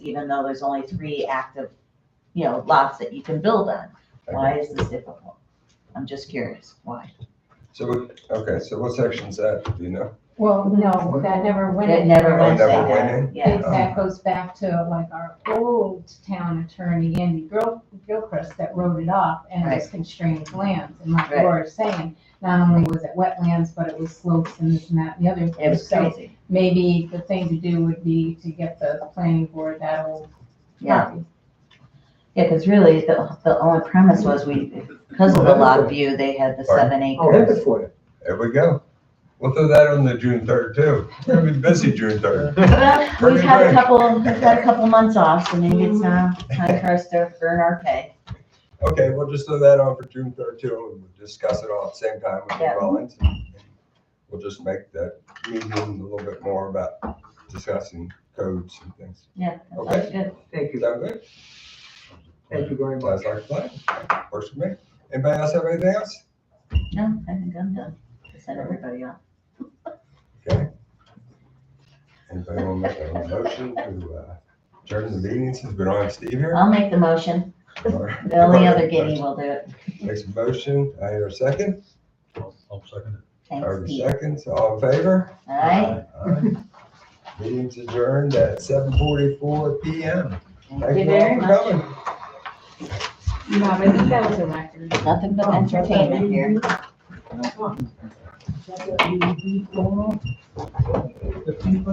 even though there's only three active, you know, lots that you can build on. Why is this difficult? I'm just curious, why? So, what- okay, so what section's that, do you know? Well, no, that never went. It never Oh, went never there. went in? Yeah, That- That goes back to like our old town attorney, Andy Gil- Gilchrist, that wrote it up and it was constrained lands. And like Right. Laura's saying, not only was it wetlands, but it was slopes and this and that and the other. it thing. was So crazy, maybe the thing to do would be to get the planning board that old yeah. copy. Yeah, because really, the, the only premise was we, because of the lot view, they had the seven I'll have acres. it for you. There we go. We'll throw that on the June third too. It'll be busy June third. Well, We've Pretty had a much. couple, we've had a couple months off, so maybe it's now time for us to earn our pay. Okay, we'll just throw that on for June third too, and we'll discuss it all at the same time with the Yeah. Rollins. We'll just make that meeting a little bit more about discussing codes and things. Yeah, that Okay. sounds good. Thank Is you. that good? Thank you very much. Sounds like a plan. Works for me. Anybody else have anything else? No, I think I'm done. I Send everybody off. Anybody want to make a motion to uh, adjourn the meeting since we don't have Steve here? I'll make the motion. Uh, The only other guinea will do it. Makes a motion. I hear a second. I'll I'll second it. Thanks, Heard a Pete. second. So all in favor? All right? Alright. Meeting's adjourned at seven forty-four PM. Thank you very all for much. coming. No, but I think that was a record. Nothing but entertainment here. The people